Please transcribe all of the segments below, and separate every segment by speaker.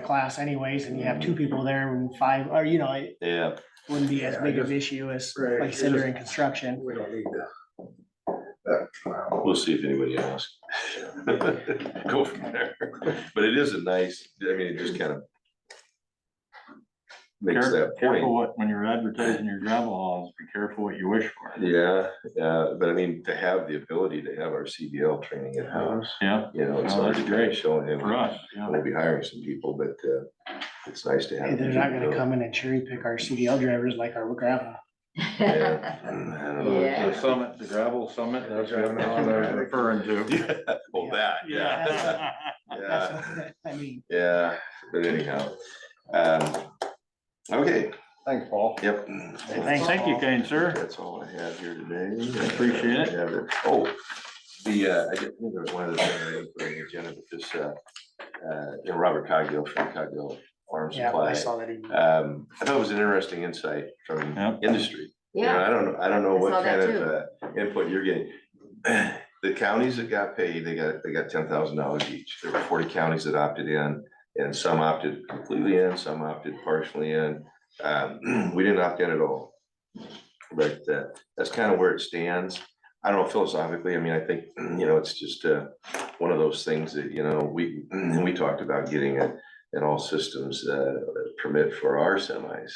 Speaker 1: class anyways, and you have two people there and five, or you know, it
Speaker 2: Yeah,
Speaker 1: wouldn't be as
Speaker 3: Yeah, I
Speaker 1: big of
Speaker 3: just-
Speaker 1: an issue as
Speaker 3: Right,
Speaker 1: like
Speaker 3: it's
Speaker 1: said
Speaker 3: just-
Speaker 1: during construction.
Speaker 3: We don't need that. That, wow.
Speaker 2: we'll see if anybody asks. Go from there. But it is a nice, I mean, it just kind of makes
Speaker 4: Care-
Speaker 2: that
Speaker 4: Careful
Speaker 2: point.
Speaker 4: what, when you're advertising your gravel hauls, be careful what you wish for.
Speaker 2: Yeah, uh, but I mean, to have the ability to have our CDL training at house,
Speaker 4: Yeah,
Speaker 2: you know, it's
Speaker 4: Oh,
Speaker 2: not
Speaker 4: that's great.
Speaker 2: showing him.
Speaker 4: for us, yeah.
Speaker 2: We'll be hiring some people, but uh, it's nice to have.
Speaker 1: And They're not gonna come in and cherry pick our CDL drivers like our grandma.
Speaker 2: Yeah, I don't know.
Speaker 4: The summit, the gravel summit, that's what I was referring to.
Speaker 2: Yeah, well, that, yeah.
Speaker 4: Yeah.
Speaker 2: Yeah.
Speaker 1: That's what I mean,
Speaker 2: Yeah, but anyhow, um, okay,
Speaker 4: Thanks, Paul.
Speaker 2: yep.
Speaker 1: Thanks.
Speaker 4: Thank you, kind sir.
Speaker 2: That's all I have here today.
Speaker 4: Appreciate it.
Speaker 2: Have Oh, the, uh, I did, there was one other thing I didn't put on the agenda, but this, uh, uh, you know, Robert Cogdill from Cogdill Farm
Speaker 1: yeah, I
Speaker 2: Supply.
Speaker 1: saw that email.
Speaker 2: Um, I thought it was an interesting insight from
Speaker 4: Yep.
Speaker 2: industry. You know,
Speaker 5: Yeah,
Speaker 2: I don't, know. I don't know
Speaker 5: I saw
Speaker 2: what
Speaker 5: that
Speaker 2: kind of uh, input you're getting. The counties that got paid, they got, they got ten thousand dollars each. There were forty counties that opted in, and some opted completely in, some opted partially in. Um, we didn't opt in at all. But uh, that's kind of where it stands. I don't know philosophically, I mean, I think, you know, it's just uh, one of those things that, you know, we, and we talked about getting a an all systems uh, permit for our semis.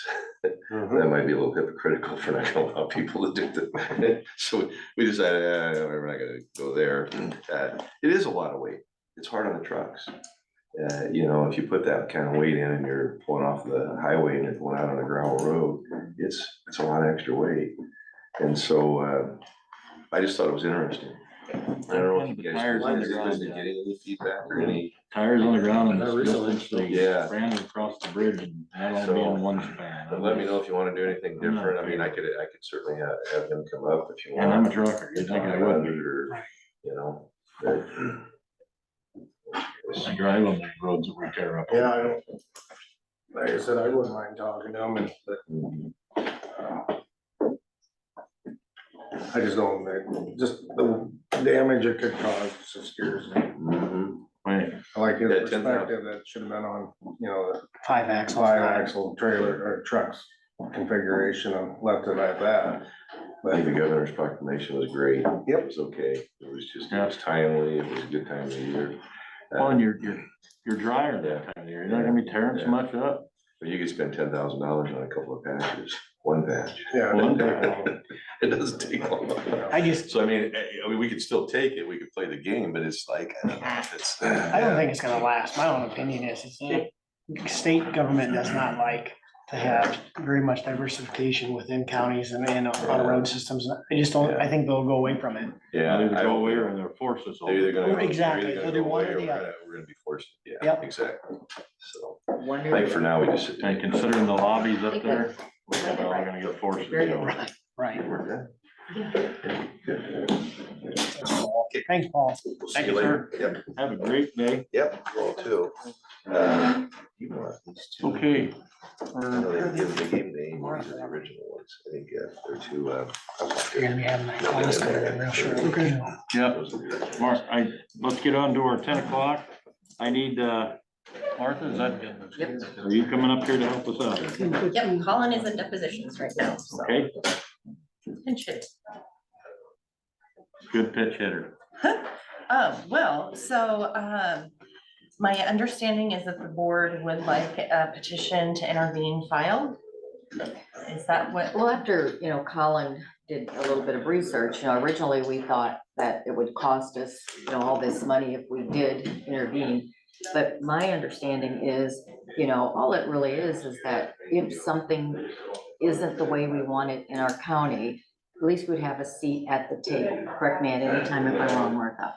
Speaker 4: Mm-hmm.
Speaker 2: That might be a little hypocritical for not gonna allow people to do that. So we decided, eh, we're not gonna go there. Uh, It is a lot of weight. It's hard on the trucks. Uh, you know, if you put that kind of weight in and you're pulling off the highway and you're going out on a gravel road, it's, it's a lot of extra weight. And so, uh, I just thought it was interesting. I don't know if you guys,
Speaker 4: Tires on the
Speaker 2: is it- is it
Speaker 4: ground, yeah.
Speaker 2: getting any feedback or any?
Speaker 4: Tires on the ground and
Speaker 3: I
Speaker 4: it's
Speaker 3: recently-
Speaker 4: just like
Speaker 2: Yeah.
Speaker 4: ran across the bridge and that only
Speaker 2: So,
Speaker 4: being one span.
Speaker 2: But let me know if you wanna do anything
Speaker 4: I'm not
Speaker 2: different. I mean, I
Speaker 4: sure.
Speaker 2: could, I could certainly have, have them come up if you want.
Speaker 4: And I'm a trucker, you think I would.
Speaker 2: Or, You know.
Speaker 1: Mm-hmm.
Speaker 2: but-
Speaker 4: I drive on the roads that we tear up.
Speaker 3: Yeah, I don't, like I said, I wouldn't mind talking to him, and, but, uh, I just don't, like, just the damage it could cause just scares me.
Speaker 2: Mhm.
Speaker 4: Wait,
Speaker 3: I Like his
Speaker 2: Yeah, 10,000.
Speaker 3: perspective, that should have been on, you know,
Speaker 1: Five
Speaker 3: the
Speaker 1: axles.
Speaker 3: five axle trailer or trucks configuration and left it at that.
Speaker 2: I think
Speaker 3: But
Speaker 2: the governor's proclamation was great. Yep. It was okay. It was just, it was timely. It was a good time of year.
Speaker 4: well, and you're, you're, you're drier that time of year. You're not gonna be tearing so much up.
Speaker 2: But you could spend ten thousand dollars on a couple of patches, one patch.
Speaker 3: yeah, it didn't take long,
Speaker 2: It doesn't take
Speaker 3: you
Speaker 2: long.
Speaker 3: know.
Speaker 1: I just,
Speaker 2: So I mean, eh, I mean, we could still take it. We could play the game, but it's like, I don't know if it's.
Speaker 1: I don't think it's gonna last. My own opinion is, it's, it- state government does not like to have very much diversification within counties and, and on road systems. I just don't, I think they'll go away from it.
Speaker 2: Yeah.
Speaker 4: Either
Speaker 2: I
Speaker 4: go
Speaker 2: don't
Speaker 4: away
Speaker 2: think-
Speaker 4: or they're forced us all.
Speaker 2: They're either gonna.
Speaker 1: Or
Speaker 2: go- they're
Speaker 1: exactly,
Speaker 2: either gonna
Speaker 1: either
Speaker 2: go
Speaker 1: one
Speaker 2: away
Speaker 1: or the
Speaker 2: we're
Speaker 1: other.
Speaker 2: gonna- We're gonna be forced, yeah,
Speaker 1: Yep.
Speaker 2: exactly. So, I think for
Speaker 5: wonderful.
Speaker 2: now, we just. sit there.
Speaker 4: And considering the lobbies up
Speaker 5: Think
Speaker 4: there,
Speaker 5: Right,
Speaker 4: we're all
Speaker 5: right.
Speaker 4: gonna get forced.
Speaker 5: Very
Speaker 4: to go.
Speaker 5: right.
Speaker 1: Right.
Speaker 2: We're good.
Speaker 1: Thanks, Paul.
Speaker 2: We'll see
Speaker 4: Thank you,
Speaker 2: later.
Speaker 4: Have a great day.
Speaker 2: Yep, yep, you all too. Uh, you know, these two-
Speaker 4: Okay. Uh,
Speaker 2: I know They give the game name, or the original ones, I think, uh, they're two, uh.
Speaker 1: You're gonna be having that class coming in real short. Okay.
Speaker 4: Yep,
Speaker 2: those are the original.
Speaker 4: Mark, I, let's get on to our ten o'clock. I need, uh, Martha, is that,
Speaker 5: Yep.
Speaker 4: are you coming up here to help us out?
Speaker 5: Yep, Colin is in depositions right now, so.
Speaker 4: Okay,
Speaker 5: and shit.
Speaker 4: good pitch hitter.
Speaker 5: Um, well, so, um, my understanding is that the board would like a petition to intervene filed. Is that what,
Speaker 6: Well, after, you know, Colin did a little bit of research, you know, originally we thought that it would cost us, you know, all this money if we did intervene. But my understanding is, you know, all it really is, is that if something isn't the way we want it in our county, at least we'd have a seat at the table, correct me at any time if I'm wrong, Martha.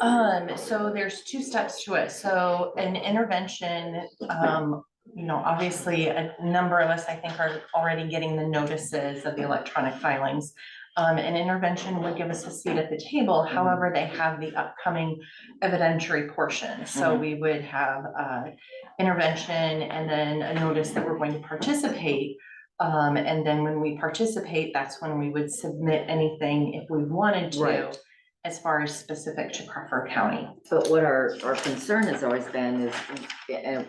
Speaker 5: um, so there's two steps to it. So an intervention, um, you know, obviously, a number of us, I think, are already getting the notices of the electronic filings. Um, an intervention would give us a seat at the table, however, they have the upcoming evidentiary portion. So we would have, uh, intervention and then a notice that we're going to participate. Um, and then when we participate, that's when we would submit anything if we wanted to,
Speaker 6: Right.
Speaker 5: as far as specific to Crawford County.
Speaker 6: But what our, our concern has always been is, and